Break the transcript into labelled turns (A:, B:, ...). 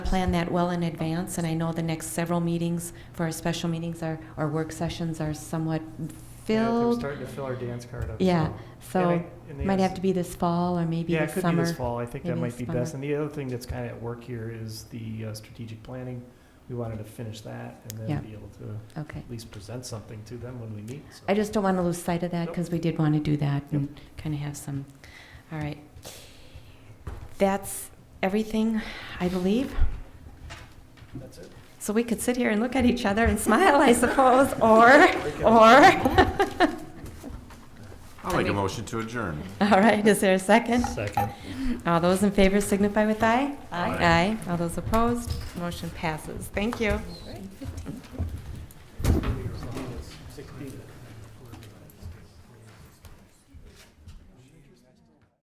A: plan that well in advance, and I know the next several meetings for our special meetings are, or work sessions are somewhat
B: Yeah, They're
A: filled.
B: starting to fill our dance card up.
A: Yeah,
B: And I-
A: so
B: and the
A: might
B: other-
A: have to be this fall or maybe
B: Yeah,
A: this
B: it could be
A: summer.
B: this fall. I think that
A: maybe
B: might be
A: summer.
B: best. And the other thing that's kind of at work here is the uh, strategic planning. We wanted to finish that and
A: Yeah.
B: then be able to
A: Okay.
B: at least present something to them when we meet. so.
A: I just don't want to lose sight of that
B: Nope.
A: because we did want to do that
B: Yep.
A: and kind of have some, all right. That's everything, I believe.
B: That's it.
A: So we could sit here and look at each other and smile, I suppose, or, or,
C: I'll make a motion to adjourn.
A: all right, is there a second?
B: Second.
A: All those in favor signify with aye.
C: Aye.
A: Aye. All those opposed, motion passes. Thank you.